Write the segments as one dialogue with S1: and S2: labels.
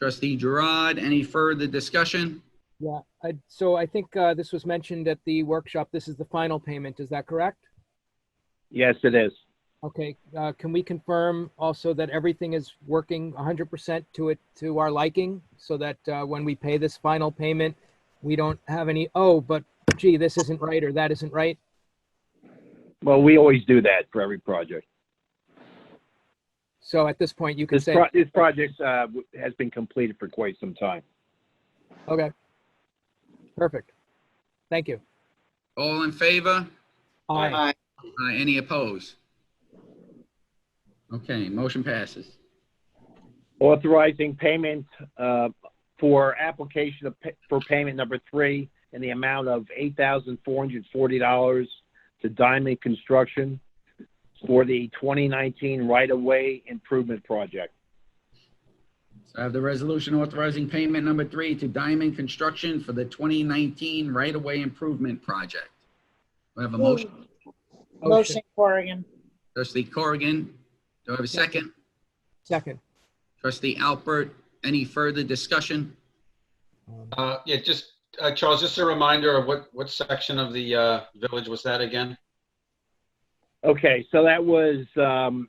S1: Trustee Gerard, any further discussion?
S2: Yeah, I, so I think uh, this was mentioned at the workshop. This is the final payment. Is that correct?
S3: Yes, it is.
S2: Okay, uh, can we confirm also that everything is working 100% to it, to our liking? So that uh, when we pay this final payment, we don't have any, oh, but gee, this isn't right or that isn't right?
S3: Well, we always do that for every project.
S2: So at this point, you can
S3: This,
S2: say,
S3: pro- this project uh, w- has been completed for quite some time.
S2: okay, perfect. Thank you.
S1: All in favor?
S2: Aye.
S1: Uh, Any opposed? Okay, motion passes.
S3: Authorizing payment uh, for application of pa- for payment number three in the amount of $8,440 to Diamond Construction for the 2019 right-of-way improvement project.
S1: So I have the resolution authorizing payment number three to Diamond Construction for the 2019 right-of-way improvement project. We have a motion.
S2: Motion.
S4: Motion Corrigan.
S1: Trustee Corrigan, do I have a second?
S2: Second.
S1: Trustee Alpert, any further discussion?
S2: Um,
S5: Uh, Yeah, just, uh, Charles, just a reminder of what, what section of the uh, village was that again?
S3: Okay, so that was um,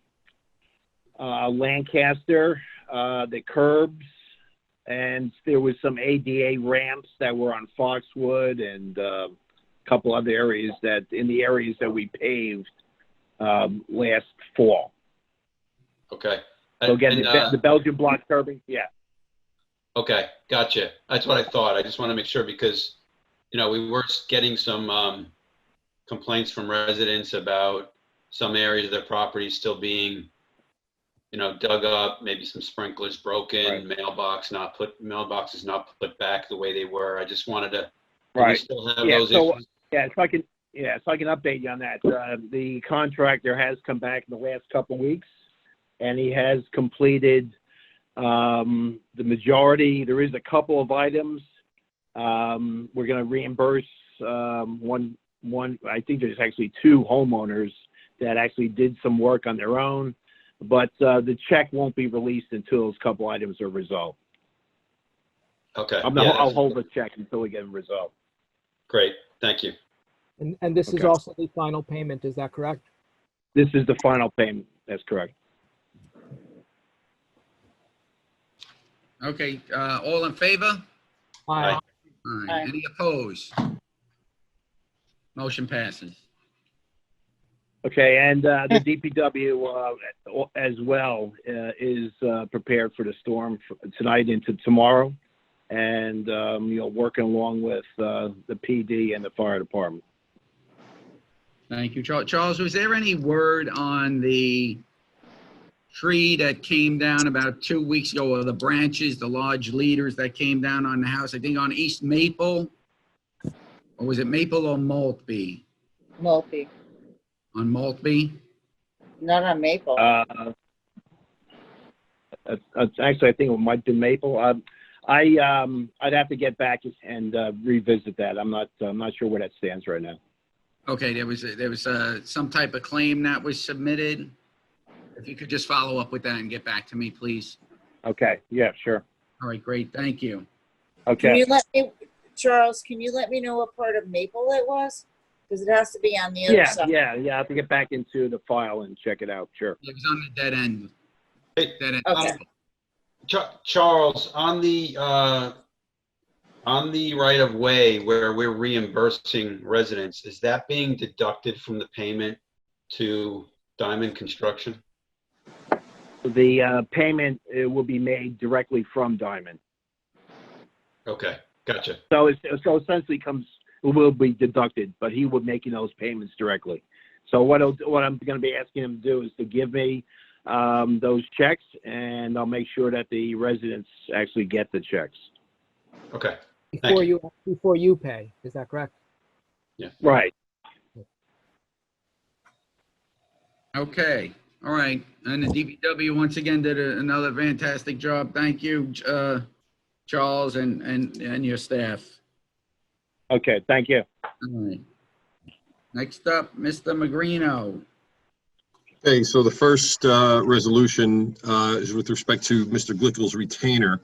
S3: uh, Lancaster, uh, the curbs, and there was some ADA ramps that were on Foxwood and uh, a couple other areas that in the areas that we paved um, last fall.
S5: Okay.
S3: So again,
S5: And,
S3: the,
S5: uh,
S3: the Belgian block curbing, yeah.
S5: Okay, gotcha. That's what I thought. I just want to make sure because, you know, we were getting some um, complaints from residents about some areas of their property still being, you know, dug up, maybe some sprinklers broken, mailbox not put, mailboxes not put back the way they were. I just wanted to, do we still have
S3: Yeah,
S5: those
S3: so-
S5: issues?
S3: Yeah, so I can, yeah, so I can update you on that. Uh, the contractor has come back in the last couple of weeks, and he has completed um, the majority. There is a couple of items. Um, we're going to reimburse um, one, one. I think there's actually two homeowners that actually did some work on their own, but uh, the check won't be released until those couple items are resolved.
S5: Okay.
S3: I'm
S5: yeah,
S3: not, I'll
S5: that's-
S3: hold the check until we get them resolved.
S5: Great, thank you.
S2: And, and this is
S3: Okay.
S2: also the final payment. Is that correct?
S3: This is the final payment. That's correct.
S1: Okay, uh, all in favor?
S2: Aye.
S5: Aye.
S1: All
S4: Aye.
S1: right, any opposed? Motion passes.
S3: Okay, and uh, the DPW uh, as well uh, is uh, prepared for the storm f- tonight into tomorrow, and um, you know working along with uh, the PD and the fire department.
S1: Thank you, Charles. Charles, was there any word on the tree that came down about two weeks ago, or the branches, the large leaders that came down on the house, I think on East Maple? Or was it Maple or Maltby?
S4: Mulkey.
S1: On Maltby?
S4: No, no, Maple.
S3: Uh, it's- it's actually, I think it might be Maple. Um, I um, I'd have to get back and uh, revisit that. I'm not I'm not sure where that stands right now.
S1: Okay, there was, there was uh, some type of claim that was submitted. If you could just follow up with that and get back to me, please.
S3: Okay, yeah, sure.
S1: All right, great, thank you.
S4: Can
S3: Okay,
S4: you let me, Charles, can you let me know what part of Maple it was? Because it has to be on the other
S3: yeah,
S4: side.
S3: yeah, yeah. I have to get back into the file and check it out. Sure.
S1: It was on the dead end.
S5: Hey,
S1: Dead end.
S4: Okay.
S5: Char- Charles, on the, uh, on the right of way where we're reimbursing residents, is that being deducted from the payment to Diamond Construction?
S3: The uh, payment uh, will be made directly from Diamond.
S5: Okay, gotcha.
S3: So it's, so essentially comes, it will be deducted, but he will be making those payments directly. So what I'll, what I'm gonna be asking him to do is to give me, um, those checks and I'll make sure that the residents actually get the checks.
S5: Okay,
S2: Before you, before you pay. Is that correct?
S3: Right.
S1: Okay, all right. And the DPW once again did a- another fantastic job. Thank you, uh, Charles and, and, and your staff.
S3: Okay, thank you.
S1: All right. Next up, Mr. Magrino.
S6: Okay, so the first uh, resolution uh, is with respect to Mr. Glickel's retainer.